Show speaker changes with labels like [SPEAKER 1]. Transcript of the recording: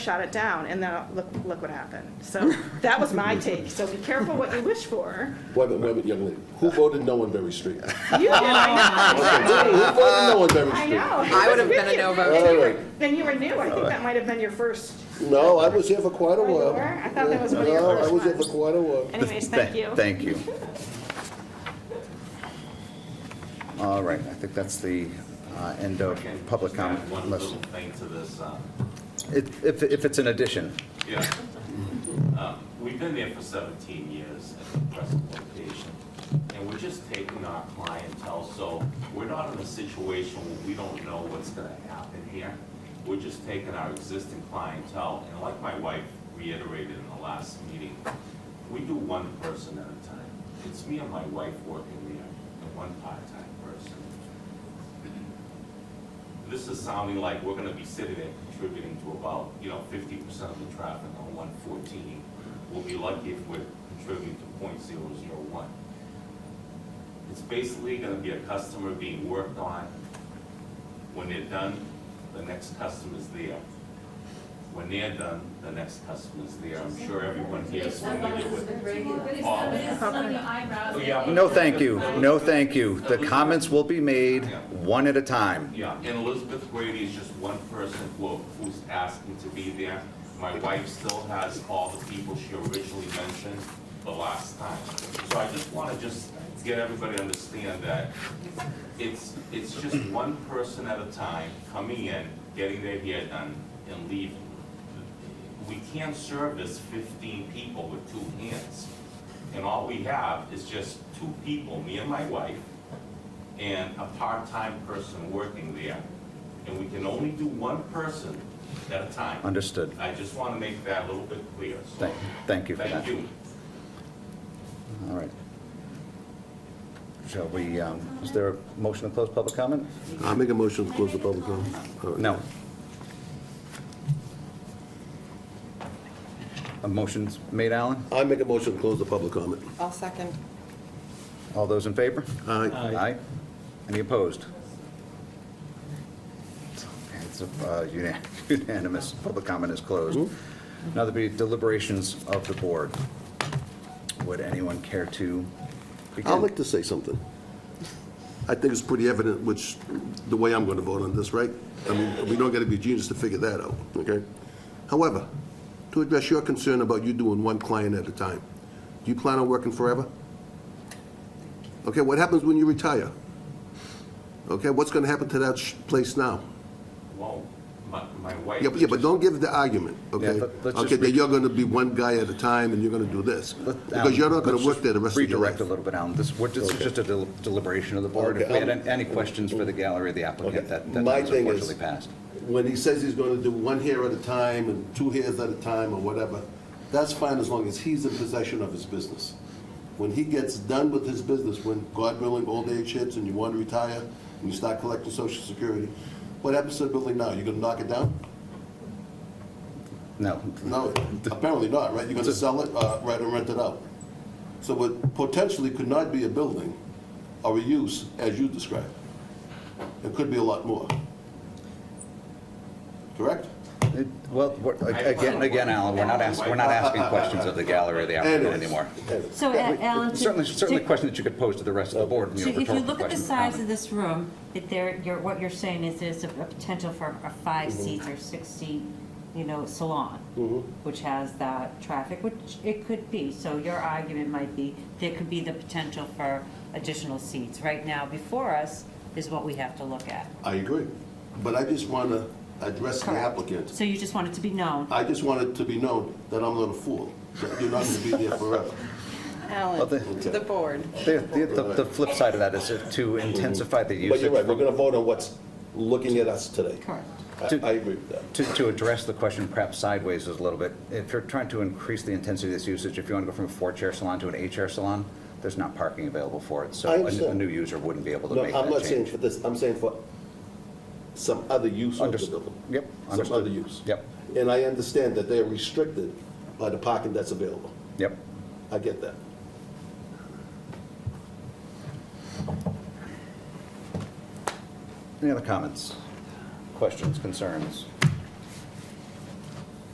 [SPEAKER 1] shot it down, and then look, look what happened. So that was my take. So be careful what you wish for.
[SPEAKER 2] Wait a minute, wait a minute, young lady. Who voted no on Berry Street?
[SPEAKER 1] You
[SPEAKER 3] Oh
[SPEAKER 1] did, I
[SPEAKER 2] Who voted no on Berry
[SPEAKER 1] know. I
[SPEAKER 2] Street?
[SPEAKER 1] know.
[SPEAKER 3] I would have been a Oh. no vote.
[SPEAKER 1] And you were-
[SPEAKER 2] Alright.
[SPEAKER 1] And you were new. I think that might have been your first.
[SPEAKER 2] No, I was here for quite a
[SPEAKER 1] Oh, you
[SPEAKER 2] while.
[SPEAKER 1] were? I thought that was one of
[SPEAKER 2] Yeah,
[SPEAKER 1] your
[SPEAKER 2] No, I
[SPEAKER 1] first
[SPEAKER 2] was here for
[SPEAKER 1] ones.
[SPEAKER 2] quite a while.
[SPEAKER 1] Anyways, thank you.
[SPEAKER 3] Thank you.
[SPEAKER 4] All right, I think that's the uh, end of
[SPEAKER 5] Can
[SPEAKER 4] public
[SPEAKER 5] just add
[SPEAKER 4] comment.
[SPEAKER 5] One
[SPEAKER 4] unless-
[SPEAKER 5] little thing to this. um,
[SPEAKER 4] If, if- if it's an addition,
[SPEAKER 5] Yeah. Um, We've been there for 17 years at the present location, and we're just taking our clientele, so we're not in a situation where we don't know what's gonna happen here. We're just taking our existing clientele, and like my wife reiterated in the last meeting, we do one person at a time. It's me and my wife working there, and one part-time person. This is sounding like we're gonna be sitting there contributing to about, you know, fifty percent of the traffic on one fourteen. We'll be lucky if we're contributing to 0.001. It's basically gonna be a customer being worked on. When they're done, the next customer's there. When they're done, the next customer's there. I'm sure everyone here is familiar with. Oh, yeah.
[SPEAKER 4] no thank you, no thank you. The comments will be made one at a time.
[SPEAKER 5] Yeah, and Elizabeth Grady is just one person who, who's asking to be there. My wife still has all the people she originally mentioned the last time. So I just wanna just get everybody to understand that it's, it's just one person at a time coming in, getting their hair done, and leaving. We can't service fifteen people with two hands. And all we have is just two people, me and my wife, and a part-time person working there, and we can only do one person at a time.
[SPEAKER 4] Understood.
[SPEAKER 5] I just want to make that a little bit clear, so.
[SPEAKER 4] Thank, thank you for that.
[SPEAKER 5] Thank you.
[SPEAKER 4] All right. Shall we, um, is there a motion to close public comment?
[SPEAKER 2] I make a motion to close the public Uh, hearing. All right.
[SPEAKER 4] No. A motion's made, Alan?
[SPEAKER 2] I make a motion to close the public comment.
[SPEAKER 3] I'll second.
[SPEAKER 4] All those in favor?
[SPEAKER 2] Aye.
[SPEAKER 4] Aye. Any opposed? It's uh, unan- unanimous. Public comment is closed. Now there'll be deliberations of the board. Would anyone care to
[SPEAKER 2] I'd
[SPEAKER 4] begin?
[SPEAKER 2] like to say something. I think it's pretty evident which, the way I'm going to vote on this, right? I mean, we don't got to be genius to figure that out, okay? However, to address your concern about you doing one client at a time, do you plan on working forever? Okay, what happens when you retire? Okay, what's going to happen to that sh- place now?
[SPEAKER 5] Well, my, my wife.
[SPEAKER 2] Yeah, but, yeah, but don't give the argument, okay?
[SPEAKER 4] let- let's just
[SPEAKER 2] Okay,
[SPEAKER 4] re-
[SPEAKER 2] that you're going to be one guy at a time and you're going to do this.
[SPEAKER 4] Let-
[SPEAKER 2] Because you're not going
[SPEAKER 4] Alan,
[SPEAKER 2] to work there the
[SPEAKER 4] let's
[SPEAKER 2] rest of your life.
[SPEAKER 4] Redirect a little bit, Alan. This, we're, this is just a del- deliberation of the board. If
[SPEAKER 2] Okay,
[SPEAKER 4] we had
[SPEAKER 2] I'm-
[SPEAKER 4] an- any questions for the gallery of the applicant,
[SPEAKER 2] Okay.
[SPEAKER 4] that, that
[SPEAKER 2] My
[SPEAKER 4] has
[SPEAKER 2] thing is-
[SPEAKER 4] unfortunately passed.
[SPEAKER 2] when he says he's going to do one hair at a time and two hairs at a time or whatever, that's fine as long as he's in possession of his business. When he gets done with his business, when God willing, old age hits and you want to retire and you start collecting social security, what happens to the building now? You're going to knock it down?
[SPEAKER 4] No,
[SPEAKER 2] No, apparently not, right? You're going to sell it, uh, right, and rent it out. So what potentially could not be a building or a use as you described. It could be a lot more. Correct?
[SPEAKER 4] It- Well, we're- again, again, Alan, we're not asking, we're not asking questions of the gallery or the applicant
[SPEAKER 2] Anyways.
[SPEAKER 4] anymore.
[SPEAKER 6] So, A- Alan, to-
[SPEAKER 4] Certainly, certainly a
[SPEAKER 6] to-
[SPEAKER 4] question that you could pose to the rest of the board.
[SPEAKER 6] So
[SPEAKER 4] know,
[SPEAKER 6] if you
[SPEAKER 4] rhetorical
[SPEAKER 6] look at the
[SPEAKER 4] question.
[SPEAKER 6] size of this room, that there, you're, what you're saying is there's a a potential for a five
[SPEAKER 4] Mm-hmm.
[SPEAKER 6] seats or six seat, you know, salon, which has that traffic, which it could be. So your argument might be, there could be the potential for additional seats. Right now, before us is what we have to look at.
[SPEAKER 2] I agree, but I just want to address the applicant.
[SPEAKER 6] So you just want it to be known.
[SPEAKER 2] I just want it to be known that I'm not a fool, that you're not going to be there forever.
[SPEAKER 4] Well,
[SPEAKER 3] Alan,
[SPEAKER 4] the-
[SPEAKER 3] to the board.
[SPEAKER 4] The, the- the- the flip side of that is if to intensify the
[SPEAKER 2] But you're right, we're
[SPEAKER 4] usage,
[SPEAKER 2] going to vote on what's looking at us today.
[SPEAKER 6] Correct.
[SPEAKER 2] I
[SPEAKER 4] To-
[SPEAKER 2] I agree with that.
[SPEAKER 4] to, to address the question perhaps sideways is a little bit, if you're trying to increase the intensity of this usage, if you want to go from a four-chair salon to an eight-chair salon, there's not parking available for it, so
[SPEAKER 2] I
[SPEAKER 4] a- a
[SPEAKER 2] understand.
[SPEAKER 4] new user wouldn't be able to
[SPEAKER 2] No,
[SPEAKER 4] make
[SPEAKER 2] I'm not
[SPEAKER 4] that
[SPEAKER 2] saying
[SPEAKER 4] change.
[SPEAKER 2] for this, I'm saying for some other use of the
[SPEAKER 4] Understood.
[SPEAKER 2] building.
[SPEAKER 4] Yep,
[SPEAKER 2] Some
[SPEAKER 4] understood.
[SPEAKER 2] other use.
[SPEAKER 4] Yep.
[SPEAKER 2] And I understand that they're restricted by the parking that's available.
[SPEAKER 4] Yep.
[SPEAKER 2] I get that.
[SPEAKER 4] Any other comments, questions, concerns?